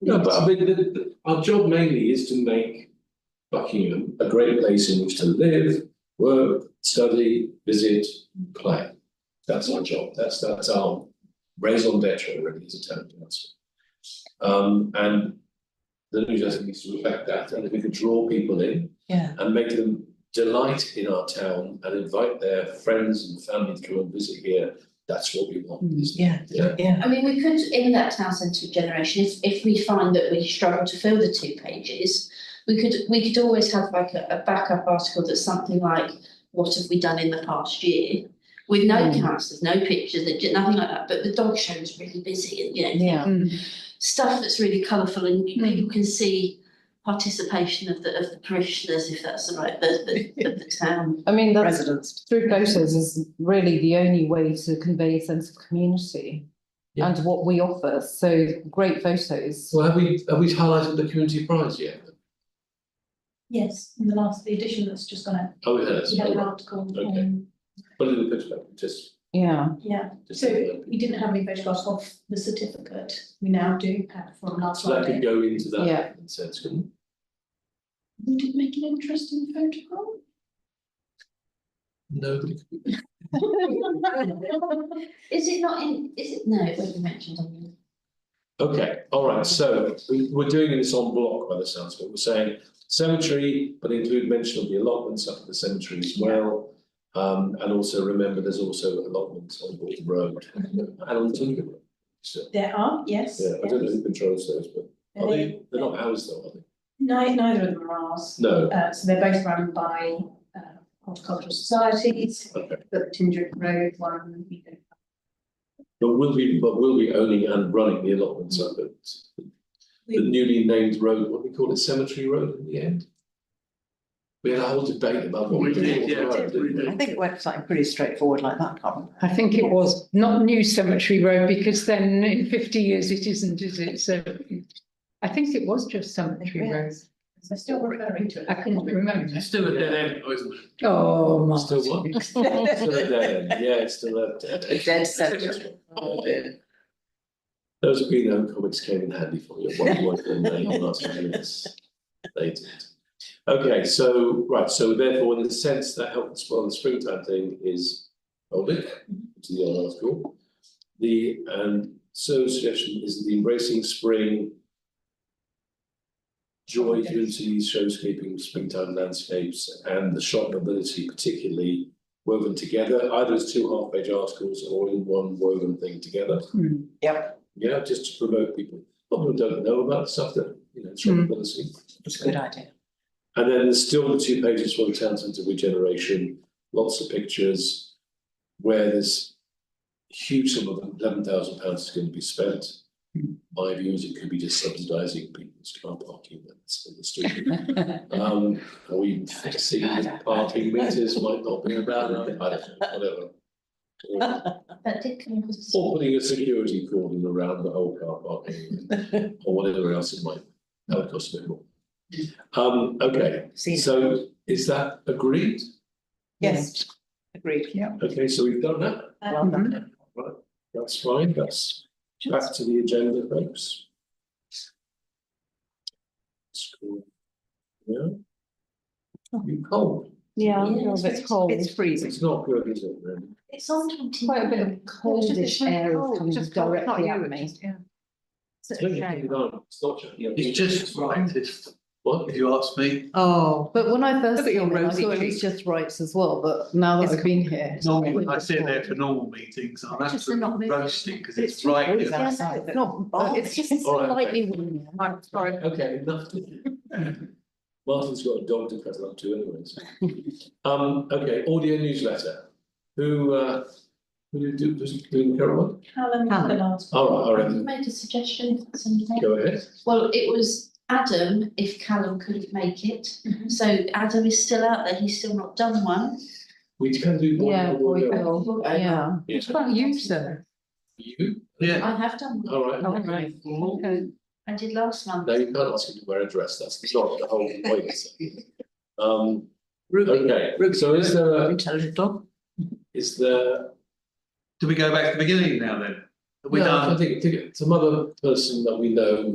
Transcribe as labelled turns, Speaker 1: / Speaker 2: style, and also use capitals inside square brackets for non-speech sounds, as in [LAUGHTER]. Speaker 1: No, but I mean, the, the, our job mainly is to make Buckingham a great place in which to live, work, study, visit, play. That's our job, that's, that's our raison d'etre really as a town council. Um, and the newsletter needs to reflect that, and if we could draw people in
Speaker 2: Yeah,
Speaker 1: and make them delight in our town and invite their friends and family to come and visit here, that's what we want, isn't it? Yeah.
Speaker 2: yeah, yeah,
Speaker 3: I mean, we could, in that town centre generation, if, if we find that we struggle to fill the two pages, we could, we could always have like a, a backup article that's something like, what have we done in the past year? With no
Speaker 2: Mm.
Speaker 3: councillors, no pictures, and j- nothing like that, but the dog show is really busy, and you know,
Speaker 2: yeah.
Speaker 3: stuff that's really colourful and you,
Speaker 2: Mm.
Speaker 3: you can see participation of the, of the parishioners, if that's the right, the,
Speaker 2: [LAUGHS]
Speaker 3: the, of the town.
Speaker 4: I mean, that's
Speaker 2: Residents.
Speaker 4: through photos is really the only way to convey a sense of community
Speaker 1: Yeah.
Speaker 4: and what we offer. So great photos.
Speaker 1: Well, have we, have we highlighted the community prize yet?
Speaker 5: Yes, in the last, the edition that's just gone out,
Speaker 1: Oh, it has,
Speaker 5: we had
Speaker 1: Oh,
Speaker 5: an
Speaker 1: right.
Speaker 5: article,
Speaker 1: Okay.
Speaker 5: um,
Speaker 1: Put it in the perspective, just,
Speaker 4: Yeah.
Speaker 5: yeah,
Speaker 1: just.
Speaker 5: so we didn't have any photographs of the certificate, we now do have from last
Speaker 1: So that
Speaker 5: Friday.
Speaker 1: could go into that
Speaker 4: Yeah.
Speaker 1: in a sense, couldn't
Speaker 5: Would it make an interesting photograph?
Speaker 1: it? Nobody. could-
Speaker 3: Is it not in, is it, no, it won't be mentioned on the.
Speaker 1: Okay, all right, so we, we're doing this on block by the sounds of it. We're saying cemetery, but include mention of the allotments up at the cemetery as well. Um, and also remember, there's also allotments on Walton Road and on Tinker Road. So,
Speaker 5: There are, yes.
Speaker 1: yeah, I don't know
Speaker 5: yes.
Speaker 1: who controls those, but
Speaker 5: Are
Speaker 1: are
Speaker 5: they-
Speaker 1: they, they're not ours though, are they?
Speaker 5: Nei- neither of them are ours,
Speaker 1: No,
Speaker 5: uh, so they're both run by, uh, horticultural societies,
Speaker 1: okay.
Speaker 5: but the Tinder Road one, we don't
Speaker 1: But will we, but will we owning and running the allotments up at the newly named road, what do we call it, Cemetery Road in the end? We had a whole debate about what we
Speaker 6: We did,
Speaker 1: did.
Speaker 6: yeah, we
Speaker 2: I
Speaker 6: did.
Speaker 2: think it went something pretty straightforward like that, can't
Speaker 7: I think it was, not New Cemetery Road, because then in fifty years it isn't, is it? So I think it was just Cemetery Road.
Speaker 5: They're still
Speaker 2: [LAUGHS]
Speaker 5: referring to it.
Speaker 7: I couldn't remember.
Speaker 6: It's still a dead end, isn't it?
Speaker 7: Oh, my.
Speaker 1: Still what? Still a dead end, yeah, it's still a dead end. [LAUGHS]
Speaker 2: Dead cemetery. it?
Speaker 1: Those green home comics came in handy for you, at one point when they last minutes. They did. Okay, so, right, so therefore, in the sense that health and well, the springtime thing is hold it, which is the other article. The, and so suggestion is the embracing spring. Joy, unity, showscaping, springtime landscapes and the shop ability particularly woven together, either as two half-page articles or in one woven thing together. Yeah, just to promote people, people who don't know about stuff that, you know, it's
Speaker 7: Mm.
Speaker 1: policy.
Speaker 2: It's a good idea.
Speaker 1: And then there's still the two pages for the town centre regeneration, lots of pictures where there's huge sum of eleven thousand pounds is going to be spent. My view is it could be just subsidising people's car parking that's on the street. Um, or even fixing the parking meters might not be about, I don't know, whatever. Or-
Speaker 3: That did come across. as-
Speaker 1: Or putting a security cordon around the whole car parking or whatever else it might, that would cost a bit more. Um, okay,
Speaker 2: See,
Speaker 1: so is that agreed?
Speaker 2: yes, agreed, yeah.
Speaker 1: Okay, so we've done that,
Speaker 2: Well
Speaker 1: Mm-hmm.
Speaker 2: done.
Speaker 1: that's fine, that's back to the agenda, folks. It's cool. Yeah. You cold,
Speaker 4: Yeah, a little bit cold.
Speaker 2: It's freezing.
Speaker 1: it's not good, is it, really?
Speaker 3: It's on twenty.
Speaker 4: Quite a bit of coldish air is coming directly at me.
Speaker 1: It's not shut down, it's not shut down.
Speaker 6: It's just right, if,
Speaker 1: What?
Speaker 6: if you ask me.
Speaker 4: Oh, but when I first
Speaker 2: Look at your
Speaker 4: came in, I
Speaker 2: rosy
Speaker 4: thought it
Speaker 2: cheeks.
Speaker 4: was just rights as well, but now that
Speaker 2: It's
Speaker 4: I've been here.
Speaker 6: Normally, when I sit there for normal meetings, I'm
Speaker 4: Just a not
Speaker 6: absolutely
Speaker 4: meeting.
Speaker 6: roasting because
Speaker 4: It's
Speaker 6: it's
Speaker 4: too
Speaker 6: right.
Speaker 4: cold
Speaker 6: there.
Speaker 4: outside.
Speaker 2: Yeah,
Speaker 4: It's not,
Speaker 2: but
Speaker 4: it's just
Speaker 7: Oh,
Speaker 1: All right, okay.
Speaker 4: slightly warm. I'm sorry.
Speaker 1: Okay, enough. [LAUGHS] Martin's got a dog to cuddle up to anyways. [LAUGHS] Um, okay, audio newsletter. Who, uh, who do, do, does doing Caroline?
Speaker 5: Callum, the last.
Speaker 1: All right, all
Speaker 3: I
Speaker 1: right,
Speaker 3: can make a suggestion if that's okay.
Speaker 1: go ahead.
Speaker 3: Well, it was Adam if Callum couldn't make it.
Speaker 5: Mhm.
Speaker 3: So Adam is still out there, he's still not done one.
Speaker 1: We can do one.
Speaker 4: Yeah,
Speaker 1: more
Speaker 4: we
Speaker 1: audio.
Speaker 4: will, yeah.
Speaker 1: Yeah.
Speaker 7: What about you, sir?
Speaker 1: You,
Speaker 6: Yeah,
Speaker 3: I have done one.
Speaker 1: all right.
Speaker 4: Oh, right.
Speaker 1: Mm-hmm.
Speaker 2: Uh,
Speaker 7: Okay.
Speaker 3: I did last month.
Speaker 1: No, you can't ask him to wear a dress, that's not the whole
Speaker 4: [LAUGHS]
Speaker 1: point. Um,
Speaker 2: Ruby,
Speaker 1: okay,
Speaker 2: Ruby.
Speaker 1: so is there,
Speaker 2: intelligent dog.
Speaker 1: is there?
Speaker 6: do we go back to the beginning now then? Are we
Speaker 1: No,
Speaker 6: done?
Speaker 1: I think, I think it's another person that we know